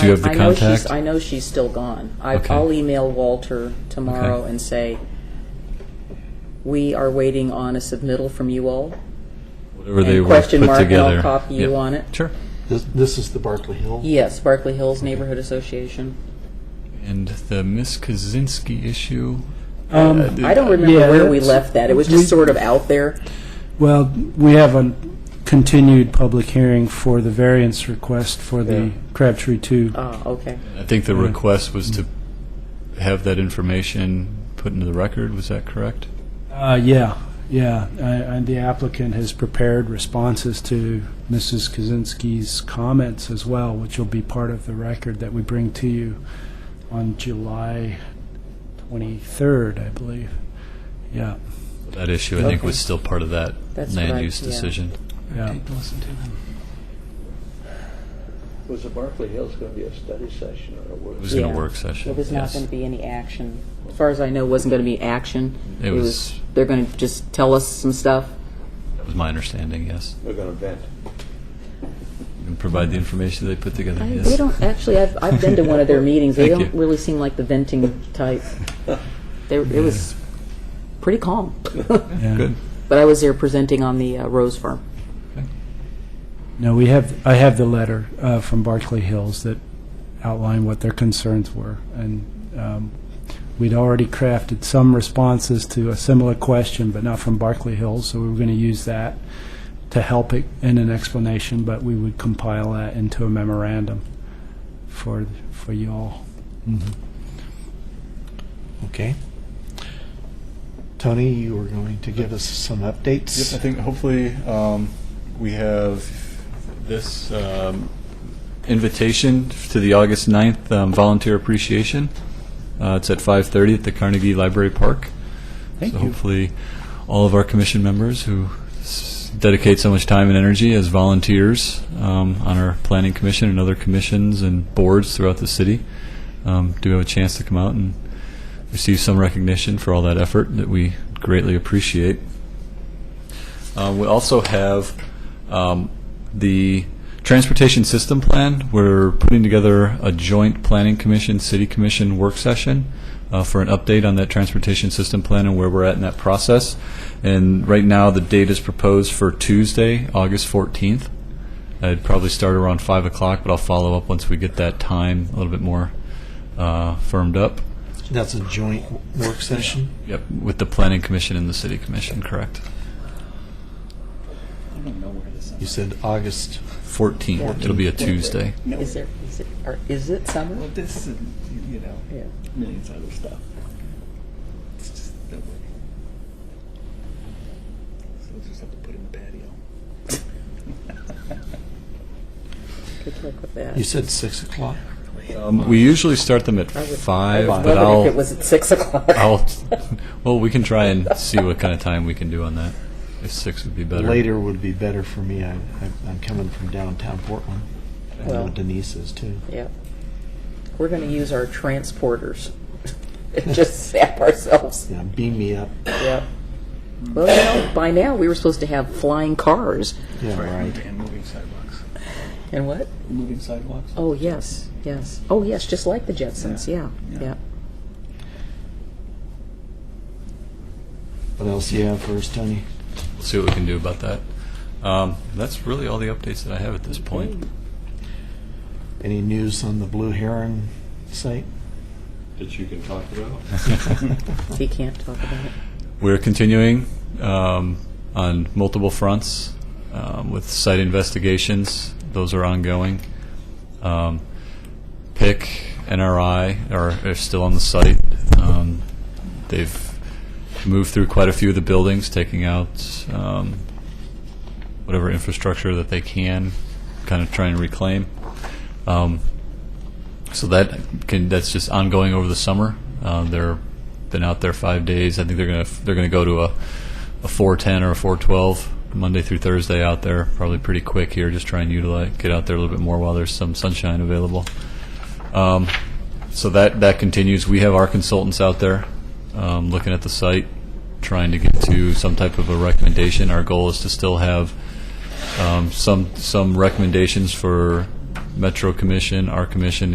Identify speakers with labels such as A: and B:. A: Do you have the
B: I know she's,
A: contact?
B: I know she's still gone. I-
A: Okay.
B: I'll email Walter tomorrow
A: Okay.
B: and say, we are waiting on a submittal from you all.
A: Whatever they
B: and
A: were
B: question
A: put
B: mark, and I'll
A: together.
B: copy you
A: Yep.
B: on it.
A: Sure.
C: This, this is the Barclay Hill.
B: Yes, Berkeley Hills Neighborhood Association.
A: And the Miss Kaczynski issue. uh,
D: Um,
B: I don't remember
D: Yeah,
B: where we
D: that's-
B: left that. It was just
D: we-
B: sort of out there.
D: Well, we have a continued public hearing for the variance request for
C: Yeah.
D: the Crabtree 2.
B: Ah, okay.
A: I think the request was to have that information put into the record. Was that correct?
D: Uh, yeah, yeah, I- and the applicant has prepared responses to Mrs. Kaczynski's comments as well, which will be part of the record that we bring to you on July 23rd, I believe. Yeah,
A: That issue, I think, was still part of that
B: That's
A: land
B: what I-
A: use
B: yeah.
A: decision.
D: yeah.
E: Was the Barclay Hills going to be a study session or a work?
A: It was in a
B: Yeah.
A: work session.
B: It was not
A: yes.
B: going to be any action. As far as I know, it wasn't going to be action.
A: It was-
B: They're going to just tell us some stuff.
A: That was my understanding. Yes,
E: They're going to vent.
A: and provide the information they put together.
B: I-
A: yes.
B: They don't, actually, I've, I've been to one of their meetings. They
A: Thank
B: don't
A: you.
B: really seem like the venting type. They, it was pretty calm.
D: yeah.
A: Good.
B: But I was there presenting on the uh, Rose Farm.
D: No, we have, I have the letter uh, from Barclay Hills that outlined what their concerns were, and um, we'd already crafted some responses to a similar question, but not from Barclay Hills, so we were going to use that to help it in an explanation, but we would compile that into a memorandum for, for you all.
C: Okay. Tony, you were going to give us some
F: Yes, I
C: updates.
F: think hopefully um, we have
A: This um, invitation to the August 9th um, volunteer appreciation. Uh, it's at 5:30 at the Carnegie Library Park.
C: Thank
A: so
C: you.
A: hopefully, all of our commission members who s- dedicate so much time and energy as volunteers um, on our planning commission and other commissions and boards throughout the city um, do have a chance to come out and receive some recognition for all that effort that we greatly appreciate. Uh, we also have um, the transportation system plan. We're putting together a joint planning commission, city commission work session uh, for an update on that transportation system plan and where we're at in that process. And right now, the date is proposed for Tuesday, August 14th. I'd probably start around 5 o'clock, but I'll follow up once we get that time a little bit more uh, firmed up.
C: That's a joint work session.
A: Yep, with the planning commission and the city commission, correct?
C: You said August.
A: 14th. It'll be a Tuesday.
B: Is there, is it, or is it summer?
G: Well, this and, you know,
B: Oh, Yeah.
G: millions of other stuff. It's just no way. So we'll just have to put it in the patio.
B: Good luck with that.
C: You said six o'clock.
A: Um, we usually start them at
B: I would-
A: five,
B: I was
A: but
B: wondering if it
A: I'll,
B: was at 6 o'clock.
A: I'll, well, we can try and see what kind of time we can do on that. If six would be better.
C: Later would be better for me. I, I, I'm coming from downtown Portland. I know
B: Well.
C: Denise is too.
B: Yeah. We're going to use our transporters and just sap ourselves.
C: Yeah, beam me up.
B: Yeah. Well, you know, by now, we were supposed to have flying cars.
C: Yeah, right.
G: And moving sidewalks.
B: And what?
G: Moving sidewalks.
B: Oh, yes, yes. Oh, yes, just like the Jetsons, yeah, yeah.
C: What else do you have for us, Tony?
A: We'll see what we can do about that. Um, that's really all the updates that I have at this point.
C: Any news on the Blue Heron site?
F: that you can talk about.
B: He can't talk about it.
A: We're continuing um, on multiple fronts um, with site investigations. Those are ongoing. Um, PIC, NRI are, are still on the site. Um, they've moved through quite a few of the buildings, taking out um, whatever infrastructure that they can, kind of try and reclaim. Um, so that can that's just ongoing over the summer. Uh, they're been out there five days. I think they're gonna they're gonna go to a a four ten or a four twelve Monday through Thursday out there. Probably pretty quick here. Just try and utilize get out there a little bit more while there's some sunshine available. Um, so that that continues. We have our consultants out there um, looking at the site, trying to get to some type of a recommendation. Our goal is to still have um, some some recommendations for Metro Commission, our commission,